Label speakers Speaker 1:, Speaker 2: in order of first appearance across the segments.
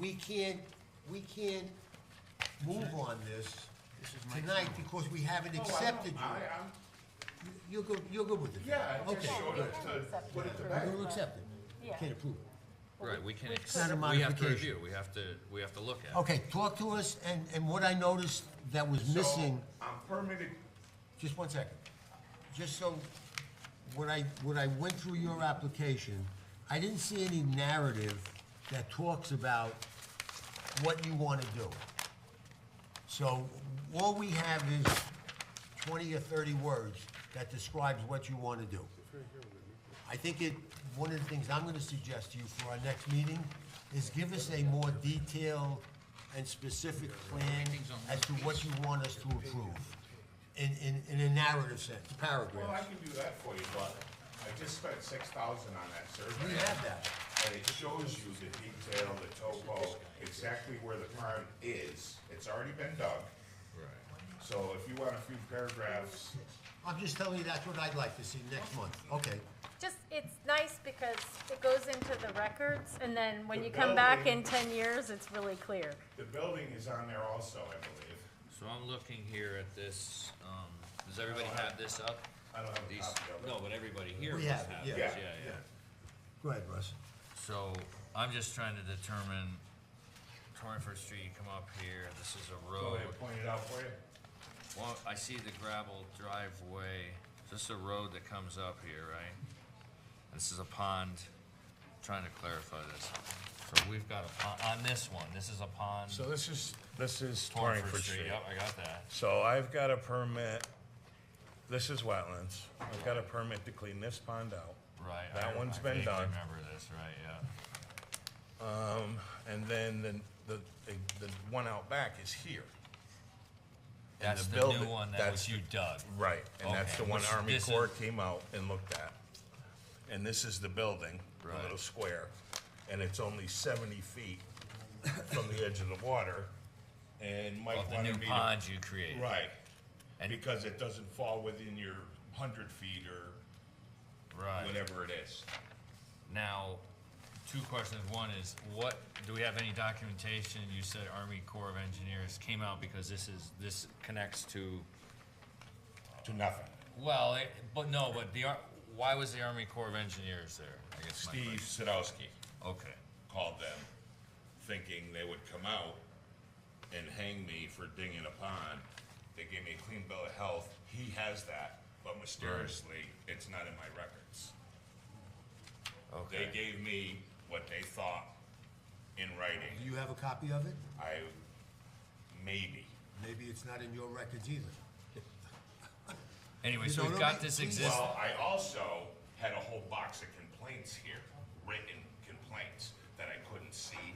Speaker 1: we can't, we can't move on this tonight because we haven't
Speaker 2: No, Oh, I don't-
Speaker 1: accepted
Speaker 2: I,
Speaker 1: you.
Speaker 2: I'm,
Speaker 1: You're good, you're good with it?
Speaker 2: yeah, I
Speaker 1: Okay,
Speaker 2: just showed
Speaker 1: good.
Speaker 2: it to put it to
Speaker 1: We're
Speaker 2: bed.
Speaker 1: gonna accept it.
Speaker 3: Yeah.
Speaker 1: Can't approve it.
Speaker 4: Right, we can,
Speaker 3: Which
Speaker 4: ex-
Speaker 3: could- It's
Speaker 1: not a
Speaker 4: we have to
Speaker 1: modification.
Speaker 4: review, we have to, we have to look at. it.
Speaker 1: Okay, talk to us, and, and what I noticed that was
Speaker 2: So,
Speaker 1: missing,
Speaker 2: I'm permitted,
Speaker 1: just one second. Just so, when I, when I went through your application, I didn't see any narrative that talks about what you want to do. So, all we have is twenty or thirty words that describes what you want to do. I think it, one of the things I'm gonna suggest to you for our next meeting is give us a more detailed and specific plan as to what you want us to approve, in, in, in a narrative sense,
Speaker 2: well, I
Speaker 1: paragraphs.
Speaker 2: can do that for you, but I just spent six thousand on that survey.
Speaker 1: We have that.
Speaker 2: And it shows you the detail, the topo, exactly where the pond is. It's already been dug. So if you want a few paragraphs,
Speaker 1: I'm just telling you that's what I'd like to see next month, okay?
Speaker 3: Just, it's nice because it goes into the records, and then when
Speaker 2: The
Speaker 3: you come back
Speaker 2: building-
Speaker 3: in ten years, it's really clear.
Speaker 2: the building is on there also, I believe.
Speaker 4: So I'm looking here at this, um, does everybody
Speaker 2: don't
Speaker 4: have this up?
Speaker 2: I don't have a
Speaker 4: These,
Speaker 2: copy of it.
Speaker 4: no, but everybody here
Speaker 1: We
Speaker 4: must
Speaker 1: have it,
Speaker 4: have this,
Speaker 1: yeah.
Speaker 4: yeah,
Speaker 2: Yeah,
Speaker 4: yeah.
Speaker 1: Go ahead, Russ.
Speaker 4: So I'm just trying to determine, Twenty-first Street, you come up here, this is a
Speaker 2: Go
Speaker 4: road.
Speaker 2: ahead, point it out for you.
Speaker 4: Well, I see the gravel driveway, this is a road that comes up here, right? This is a pond, trying to clarify this. So we've got a pond, on this one, this is a pond,
Speaker 5: So this is, this is
Speaker 4: Torrenford
Speaker 5: Torringford
Speaker 4: Street,
Speaker 5: Street.
Speaker 4: yep, I got that.
Speaker 5: So I've got a permit, this is wetlands. I've got a permit to clean this pond out.
Speaker 4: Right. I-
Speaker 5: That one's
Speaker 4: I
Speaker 5: been
Speaker 4: vaguely
Speaker 5: done.
Speaker 4: Remember this, right, yeah.
Speaker 5: And then the, the, the one out back is here. And
Speaker 4: That's
Speaker 5: the
Speaker 4: the new
Speaker 5: building-
Speaker 4: one that
Speaker 5: that's
Speaker 4: was you dug.
Speaker 5: Right, and that's the
Speaker 4: Okay,
Speaker 5: one
Speaker 4: which
Speaker 5: Army
Speaker 4: this
Speaker 5: Corps
Speaker 4: is-
Speaker 5: came out and looked at. And this is the building, the
Speaker 4: Right.
Speaker 5: little square, and it's only seventy feet from the edge of the water. And
Speaker 4: Of
Speaker 5: Mike
Speaker 4: the new
Speaker 5: wanted me to
Speaker 4: pond you created.
Speaker 5: Right,
Speaker 4: And-
Speaker 5: because it doesn't fall within your hundred feet or
Speaker 4: Right.
Speaker 5: whatever it is.
Speaker 4: Now, two questions. One is, what, do we have any documentation? You said Army Corps of Engineers came out because this is, this connects to,
Speaker 5: To nothing.
Speaker 4: well, it- but no, but the, Ar- why was the Army Corps of Engineers there? I guess my
Speaker 5: Steve
Speaker 4: question-
Speaker 5: Sadowski
Speaker 4: Okay,
Speaker 5: called them, thinking they would come out and hang me for dinging a pond. They gave me a clean bill of health. He has that, but mysteriously, it's not in my records. They
Speaker 4: okay.
Speaker 5: gave me what they thought in
Speaker 1: Do
Speaker 5: writing.
Speaker 1: you have a copy of it?
Speaker 5: I, maybe.
Speaker 1: Maybe it's not in your records either.
Speaker 4: Anyway,
Speaker 1: You
Speaker 4: so
Speaker 1: don't
Speaker 4: we've
Speaker 1: know
Speaker 4: got
Speaker 1: me?
Speaker 4: this
Speaker 1: Please.
Speaker 4: exist,
Speaker 5: Well,
Speaker 4: all
Speaker 5: I also had a whole box of complaints here, written complaints that I couldn't see.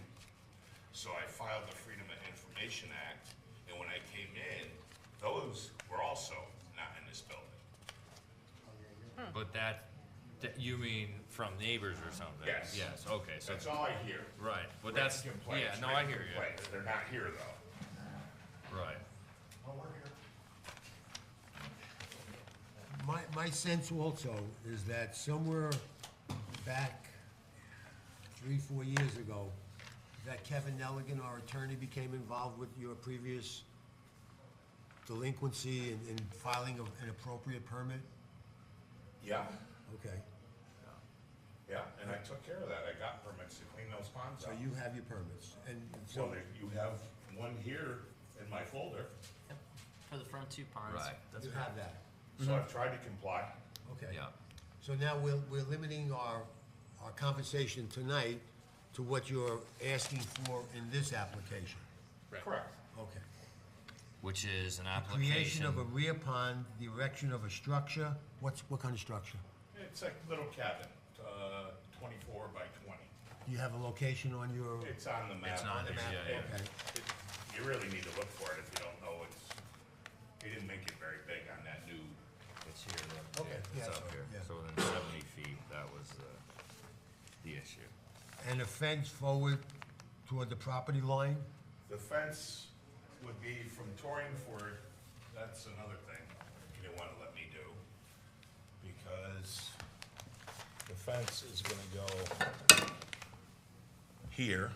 Speaker 5: So I filed the Freedom of Information Act, and when I came in, those were also not in this building.
Speaker 4: but that, that, you mean from neighbors or something?
Speaker 2: Yes.
Speaker 4: Yes, okay, so,
Speaker 2: That's all I hear.
Speaker 4: right, but
Speaker 2: Written
Speaker 4: that's, yeah,
Speaker 2: complaints,
Speaker 4: no, I
Speaker 2: written
Speaker 4: hear you.
Speaker 2: complaints. They're not here, though.
Speaker 4: Right.
Speaker 1: My, my sense also is that somewhere back three, four years ago, that Kevin Nelligan, our attorney, became involved with your previous delinquency and, and filing of an appropriate permit?
Speaker 2: Yeah,
Speaker 1: Okay,
Speaker 2: yeah, and I took care of that. I got permits to clean those ponds
Speaker 1: so
Speaker 2: out.
Speaker 1: you have your permits, and
Speaker 2: So
Speaker 1: so,
Speaker 2: there- you have one here in my folder,
Speaker 6: For the front two ponds.
Speaker 4: Right.
Speaker 6: That's
Speaker 1: you
Speaker 6: correct.
Speaker 1: have that,
Speaker 5: Mm-hmm.
Speaker 2: so I've tried to comply.
Speaker 1: okay.
Speaker 4: Yeah,
Speaker 1: So now we're, we're limiting our, our conversation tonight to what you're asking for in this application,
Speaker 2: Correct.
Speaker 1: okay.
Speaker 4: which is an
Speaker 1: Creation
Speaker 4: application.
Speaker 1: of a rear pond, the erection of a structure, what's, what kind of structure?
Speaker 2: It's like a little cabin, uh, twenty-four by twenty.
Speaker 1: Do you have a location on your,
Speaker 2: It's on the map.
Speaker 4: It's on there, yeah, yeah.
Speaker 1: okay,
Speaker 2: It- You really need to look for it if you don't know it's, he didn't make it very big on that new,
Speaker 4: It's here, look.
Speaker 1: Okay,
Speaker 4: Yeah,
Speaker 1: yeah,
Speaker 4: It's
Speaker 1: that's
Speaker 4: up
Speaker 1: right,
Speaker 4: here.
Speaker 1: yeah.
Speaker 4: So within seventy feet, that was the, the issue.
Speaker 1: and a fence forward toward the property line?
Speaker 2: the fence would be from Torringford, that's another thing he didn't wanna let me do. Because
Speaker 5: The fence is gonna go here,